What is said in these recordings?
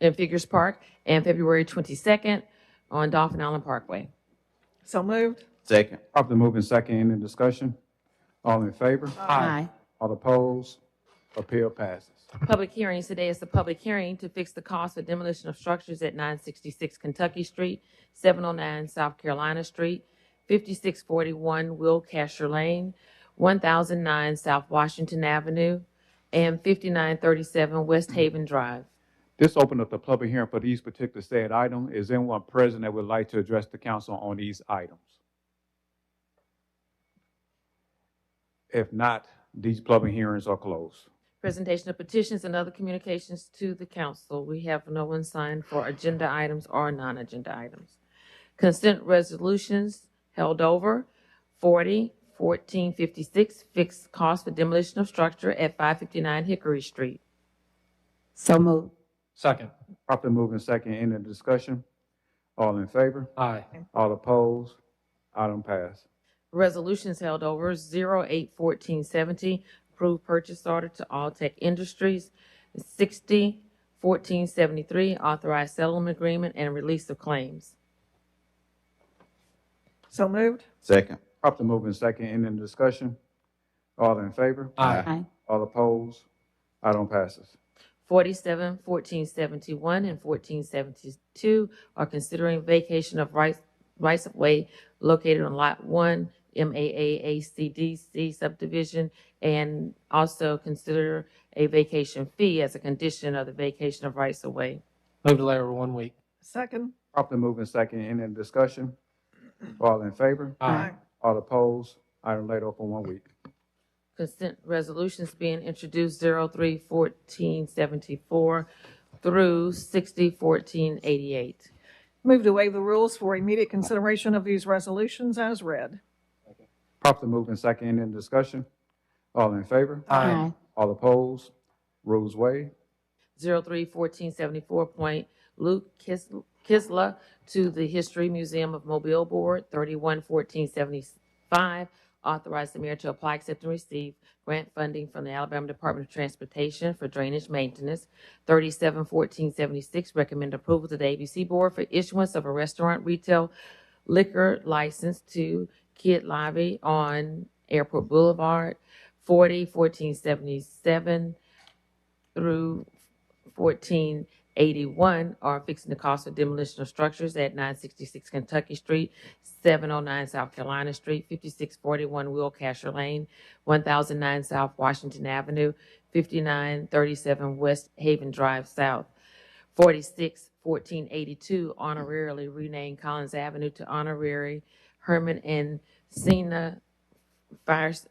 in Figures Park, and February 22nd on Dolphin Island Parkway. So moved. Second. Properly moved in second, any discussion? All in favor? Aye. All opposed? Appeal passes. Public hearings today is the public hearing to fix the cost of demolition of structures at 966 Kentucky Street, 709 South Carolina Street, 5641 Will Casher Lane, 1009 South Washington Avenue, and 5937 West Haven Drive. This opened up the public hearing for these particular said item. Is anyone present that would like to address the council on these items? If not, these public hearings are closed. Presentation of petitions and other communications to the council. We have no one signed for agenda items or non-agenda items. Consent resolutions held over, 40, 1456, fixed cost for demolition of structure at 559 Hickory Street. So moved. Second. Properly moved in second, any discussion? All in favor? Aye. All opposed? Item passed. Resolutions held over, 081470, approved purchase order to Alltech Industries, 601473, authorized settlement agreement and release of claims. So moved. Second. Properly moved in second, any discussion? All in favor? Aye. Aye. All opposed? Item passes. 47, 1471, and 1472 are considering vacation of rights, rights of way located on Lot 1, MAAACDC subdivision, and also consider a vacation fee as a condition of the vacation of rights of way. Move delay over one week. Second. Properly moved in second, any discussion? All in favor? Aye. All opposed? Item laid open one week. Consent resolutions being introduced 03, 1474 through 60, 1488. Move to waive the rules for immediate consideration of these resolutions as read. Properly moved in second, any discussion? All in favor? Aye. All opposed? Rules waived. 031474 Point Luke Kis- Kisla to the History Museum of Mobile Board, 311475, authorize the mayor to apply, accept, and receive grant funding from the Alabama Department of Transportation for drainage maintenance, 371476, recommend approval to the ABC Board for issuance of a restaurant retail liquor license to Kid Lobby on Airport Boulevard, 401477 through 1481 are fixing the cost of demolition of structures at 966 Kentucky Street, 709 South Carolina Street, 5641 Will Casher Lane, 1009 South Washington Avenue, 5937 West Haven Drive South, 46 1482 honorarily renamed Collins Avenue to honorary Herman and Cena Fires-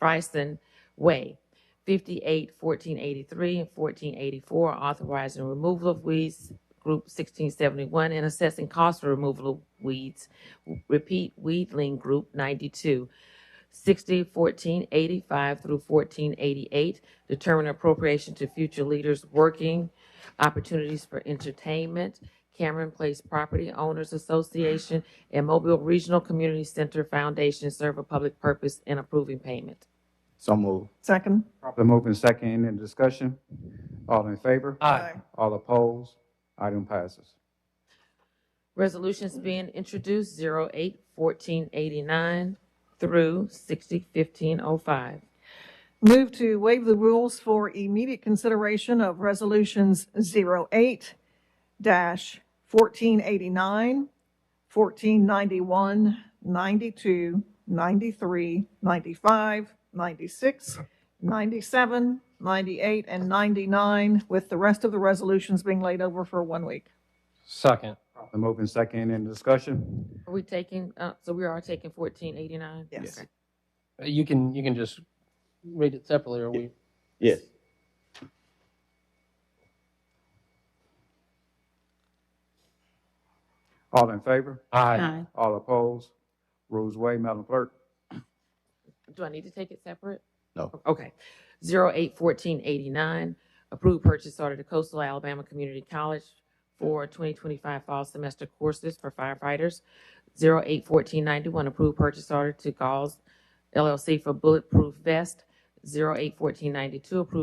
Frison Way. 58, 1483, and 1484, authorizing removal of weeds, group 1671, and assessing cost for removal of weeds, repeat weedling group 92. 60, 1485 through 1488, determine appropriation to future leaders working, opportunities for entertainment, Cameron Place Property Owners Association, and Mobile Regional Community Center Foundation serve a public purpose in approving payment. So moved. Second. Properly moved in second, any discussion? All in favor? Aye. All opposed? Item passes. Resolutions being introduced 08 1489 through 60 1505. Move to waive the rules for immediate consideration of resolutions 08 1489, 1491, 92, 93, 95, 96, 97, 98, and 99, with the rest of the resolutions being laid over for one week. Second. Properly moved in second, any discussion? Are we taking, uh, so we are taking 1489? Yes. Okay. You can, you can just read it separately or we, Yes. All in favor? aye. Aye. All opposed? Rules waived. Madam Clerk? Do I need to take it separate? No. Okay. 08 1489, approved purchase order to Coastal Alabama Community College for 2025 fall semester courses for firefighters. 08 1491, approved purchase order to Gauls LLC for bulletproof vest. 08 1492, approved